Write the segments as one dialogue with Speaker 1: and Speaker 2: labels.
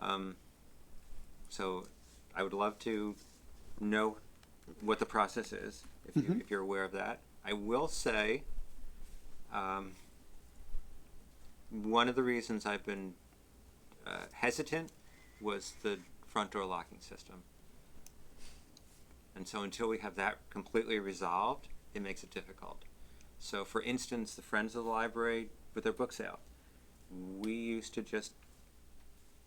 Speaker 1: Um, so I would love to know what the process is, if, you, if you're aware of that. I will say, um, one of the reasons I've been uh, hesitant was the front door locking system. And so until we have that completely resolved, it makes it difficult. So, for instance, the Friends of the Library with their book sale, we used to just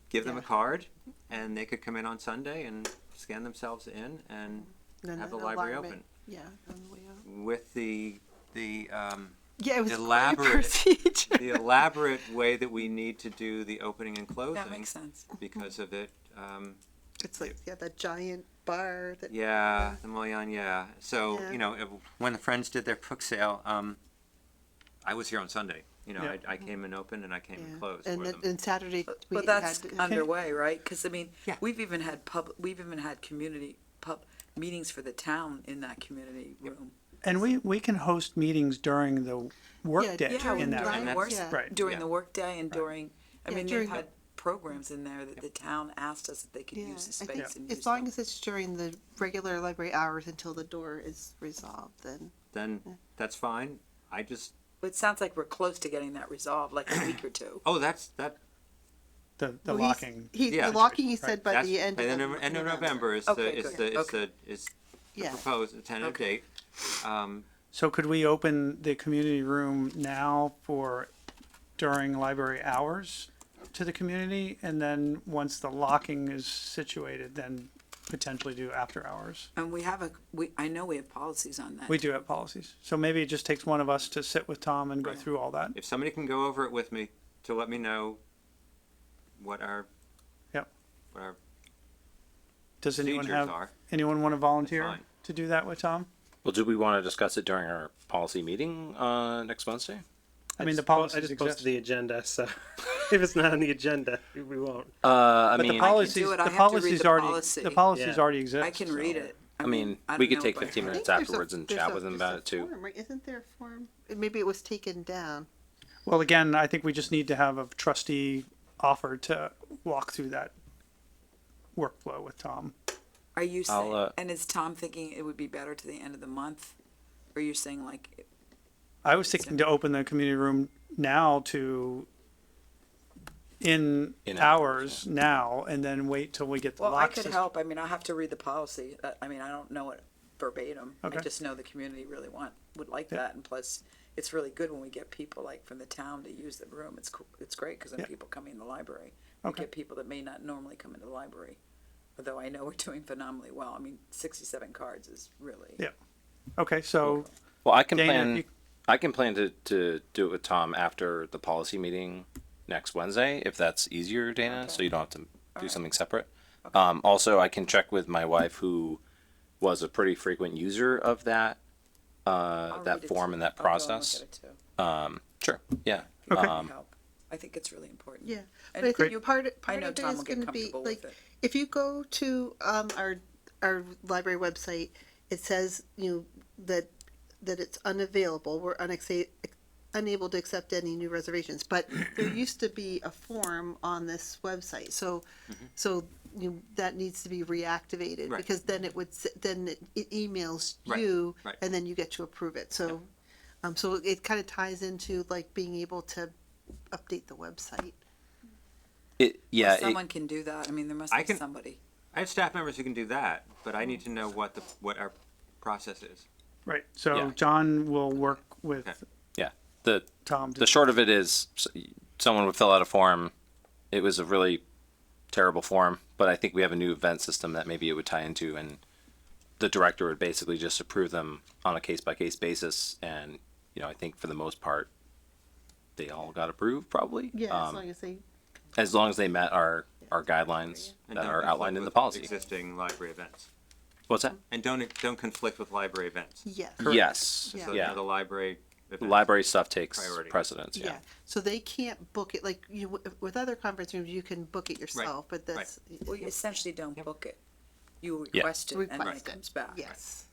Speaker 1: give them a
Speaker 2: Yeah.
Speaker 1: card and they could come in on Sunday and scan themselves in and
Speaker 2: Then
Speaker 1: have the
Speaker 2: an
Speaker 1: library
Speaker 2: alignment- Yeah, on the way out.
Speaker 1: open with the the um,
Speaker 2: Yeah, it was
Speaker 1: was quite a
Speaker 2: elaborate
Speaker 1: Elaborate.
Speaker 2: procedure.
Speaker 1: the elaborate way that we need to do the opening and closing
Speaker 3: That makes sense. Mm-hmm.
Speaker 1: because of it. Um,
Speaker 2: It's like yeah, that giant bar that
Speaker 1: Yeah, the Moyan, yeah. So,
Speaker 2: Yeah.
Speaker 1: you know, it, when the Friends did their book sale, um, I was here on Sunday. You know, I, I came and opened and I came
Speaker 2: Mm-hmm. yeah.
Speaker 1: and closed
Speaker 2: and
Speaker 1: for
Speaker 2: then
Speaker 1: them.
Speaker 2: and Saturday we
Speaker 3: But that's
Speaker 2: had
Speaker 3: underway, right? Because I mean,
Speaker 1: Yeah.
Speaker 3: we've even had pub, we've even had community pub meetings for the town in that community room.
Speaker 4: And we, we can host meetings during the workday
Speaker 2: Yeah,
Speaker 4: in that
Speaker 3: during
Speaker 1: room.
Speaker 3: the
Speaker 1: That's-
Speaker 3: work-
Speaker 4: right.
Speaker 3: During
Speaker 1: Yeah.
Speaker 3: the workday and during, I
Speaker 2: Yeah,
Speaker 3: mean,
Speaker 2: during
Speaker 3: they've
Speaker 2: the-
Speaker 3: had programs in there that the town asked us if they could
Speaker 2: yeah,
Speaker 3: use the
Speaker 2: I think
Speaker 3: space and use
Speaker 2: as long
Speaker 3: them.
Speaker 2: as it's during the regular library hours until the door is resolved, then
Speaker 1: Then that's fine. I just,
Speaker 3: It sounds like we're close to getting that resolved, like a week or two.
Speaker 1: oh, that's, that,
Speaker 4: The, the
Speaker 2: Well, he's-
Speaker 4: locking.
Speaker 2: He,
Speaker 1: Yeah.
Speaker 2: the locking he said by
Speaker 1: that's,
Speaker 2: the end.
Speaker 1: by
Speaker 2: of
Speaker 1: the
Speaker 2: Nov-
Speaker 1: Nov- end of November is the,
Speaker 3: Okay,
Speaker 1: is
Speaker 3: good.
Speaker 1: the, is
Speaker 3: Okay.
Speaker 1: the, is the
Speaker 2: Yeah.
Speaker 1: proposed tentative date. Um,
Speaker 4: So could we open the community room now for, during library hours to the community? And then once the locking is situated, then potentially do after hours?
Speaker 3: And we have a, we, I know we have policies on that.
Speaker 4: We do have policies. So maybe it just takes one of us to sit with Tom and go
Speaker 1: Right.
Speaker 4: through all that.
Speaker 1: if somebody can go over it with me to let me know what our,
Speaker 4: Yep.
Speaker 1: what our
Speaker 4: Does anyone
Speaker 1: procedures
Speaker 4: have,
Speaker 1: are,
Speaker 4: anyone want to volunteer
Speaker 1: fine.
Speaker 4: to do that with Tom?
Speaker 5: Well, do we want to discuss it during our policy meeting uh, next Wednesday?
Speaker 4: I mean, the
Speaker 6: just
Speaker 4: policies
Speaker 6: posted- I just
Speaker 4: exist.
Speaker 6: posted the agenda, so if it's not on the agenda, we won't.
Speaker 5: Uh, I
Speaker 4: But the
Speaker 5: mean,
Speaker 4: policies,
Speaker 3: do it. I
Speaker 4: the
Speaker 3: have to read
Speaker 4: policies
Speaker 3: the
Speaker 4: already,
Speaker 3: policy.
Speaker 4: the policies
Speaker 6: Yeah.
Speaker 4: already exist.
Speaker 3: I can read it.
Speaker 5: I mean,
Speaker 3: I
Speaker 5: we
Speaker 3: don't
Speaker 5: could
Speaker 3: know
Speaker 5: take
Speaker 3: if I-
Speaker 5: fifteen
Speaker 2: I think
Speaker 5: minutes
Speaker 2: there's a-
Speaker 5: afterwards and
Speaker 2: there's
Speaker 5: chat
Speaker 2: a-
Speaker 5: with them
Speaker 2: there's a
Speaker 5: about it too.
Speaker 2: form, right? Isn't there a form? Maybe it was taken down.
Speaker 4: Well, again, I think we just need to have a trustee offer to walk through that workflow with Tom.
Speaker 3: Are you
Speaker 5: I'll,
Speaker 3: saying,
Speaker 5: uh,
Speaker 3: and is Tom thinking it would be better to the end of the month? Or you're saying like,
Speaker 4: I was thinking to open the community room now to in
Speaker 5: In
Speaker 4: hours now and then wait till we get the
Speaker 3: well, I
Speaker 4: lock
Speaker 3: could
Speaker 4: system.
Speaker 3: help. I mean, I'll have to read the policy. Uh, I mean, I don't know it verbatim. I
Speaker 4: Okay.
Speaker 3: just know the community really want, would like
Speaker 4: Yeah.
Speaker 3: that. And plus, it's really good when we get people like from the town to use the room. It's cool. It's great because then
Speaker 4: Yeah.
Speaker 3: people come in the library. We
Speaker 4: Okay.
Speaker 3: get people that may not normally come into the library. Although I know we're doing phenomenally well. I mean, sixty-seven cards is really.
Speaker 4: Yeah. Okay, so
Speaker 5: Well, I can
Speaker 4: Dana, if
Speaker 5: plan.
Speaker 4: you-
Speaker 5: I can plan to, to do it with Tom after the policy meeting next Wednesday, if that's easier, Dana. So you don't have to do something separate. Um, also, I can check with my wife, who was a pretty frequent user of that uh,
Speaker 3: I'll read
Speaker 5: that
Speaker 3: it
Speaker 5: form
Speaker 3: too.
Speaker 5: and that
Speaker 3: I'll go and look
Speaker 5: process.
Speaker 3: at it too.
Speaker 5: Um, sure. Yeah.
Speaker 4: Okay.
Speaker 3: That'd
Speaker 5: Um,
Speaker 3: help. I think it's really important.
Speaker 2: Yeah, but
Speaker 3: And
Speaker 2: I think
Speaker 3: you-
Speaker 2: part of,
Speaker 3: I
Speaker 2: part
Speaker 3: know
Speaker 2: of it
Speaker 3: Tom
Speaker 2: is
Speaker 3: will get
Speaker 2: going to be
Speaker 3: comfortable with
Speaker 2: like
Speaker 3: it.
Speaker 2: if you go to um, our our library website, it says you know, that that it's unavailable. We're unexa- unable to accept any new reservations. But there used to be a form on this website, so
Speaker 3: Mm-hmm.
Speaker 2: so you know, that needs to be reactivated
Speaker 1: Right.
Speaker 2: because then it would s- then it, it emails
Speaker 1: Right,
Speaker 2: you
Speaker 1: right.
Speaker 2: and then you get to approve it. So. Um, so it kind of ties into like being able to update the website.
Speaker 5: It, yeah. it-
Speaker 3: Someone can do that. I mean, there must
Speaker 1: I
Speaker 3: be
Speaker 1: can-
Speaker 3: somebody.
Speaker 1: I have staff members who can do that, but I need to know what the, what our process is.
Speaker 4: right, so
Speaker 5: Yeah.
Speaker 4: John will work with
Speaker 1: Okay.
Speaker 5: yeah. The
Speaker 4: Tom. to-
Speaker 5: the short of it is s- someone would fill out a form. It was a really terrible form, but I think we have a new event system that maybe it would tie into, and the director would basically just approve them on a case by case basis. And you know, I think for the most part, they all got approved probably.
Speaker 2: Yeah, as
Speaker 5: um,
Speaker 2: long as they
Speaker 5: as long as they met our our guidelines
Speaker 1: And
Speaker 5: that
Speaker 1: don't
Speaker 5: are
Speaker 1: conflict
Speaker 5: outlined in the
Speaker 1: with
Speaker 5: policy.
Speaker 1: Existing library events.
Speaker 5: What's that?
Speaker 1: And don't, don't conflict with library events.
Speaker 2: Yes.
Speaker 5: Yes.
Speaker 2: Yeah.
Speaker 1: So, you know,
Speaker 5: Yeah.
Speaker 1: The library. events.
Speaker 5: Library stuff takes
Speaker 1: Priority.
Speaker 5: precedence.
Speaker 2: Yeah.
Speaker 5: Yeah.
Speaker 2: So they can't book it like you w- with other conference rooms. You can book it yourself, but that's
Speaker 3: Well, you essentially don't book it. You
Speaker 5: Yeah.
Speaker 3: request it and then it
Speaker 2: Request it.
Speaker 3: comes back.
Speaker 2: yes.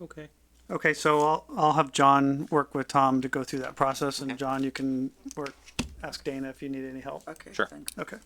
Speaker 6: Okay.
Speaker 4: Okay, so I'll, I'll have John work with Tom to go through that process and John, you can work, ask Dana if you need any help.
Speaker 3: Okay,
Speaker 5: Sure.
Speaker 3: thanks.
Speaker 4: Okay,